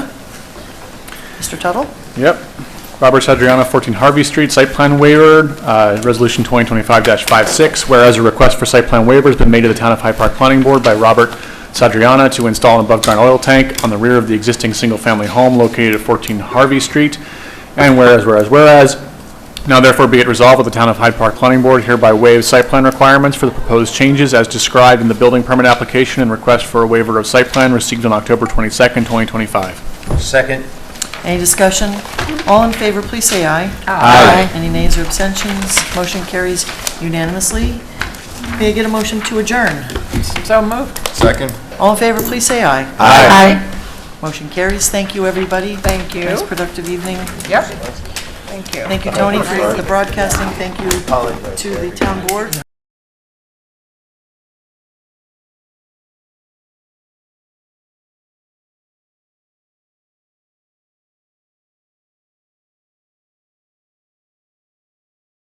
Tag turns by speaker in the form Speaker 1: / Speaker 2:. Speaker 1: Mr. Tuttle?
Speaker 2: Yep. Robert Sadriano, 14 Harvey Street, site plan waiver, uh, resolution 2025-56, whereas a request for site plan waiver has been made to the Town of Hyde Park Planning Board by Robert Sadriano to install an above-ground oil tank on the rear of the existing single-family home located at 14 Harvey Street. And whereas, whereas, whereas, Now therefore be it resolved that the Town of Hyde Park Planning Board hereby waives site plan requirements for the proposed changes as described in the building permit application and request for a waiver of site plan received on October 22nd, 2025.
Speaker 3: Second.
Speaker 1: Any discussion? All in favor, please say aye. Aye. Any nays or abstentions? Motion carries unanimously. May I get a motion to adjourn? So moved.
Speaker 3: Second.
Speaker 1: All in favor, please say aye.
Speaker 3: Aye.
Speaker 1: Motion carries. Thank you, everybody. Thank you. Nice productive evening. Yep. Thank you. Thank you, Tony, for the broadcasting. Thank you to the town board.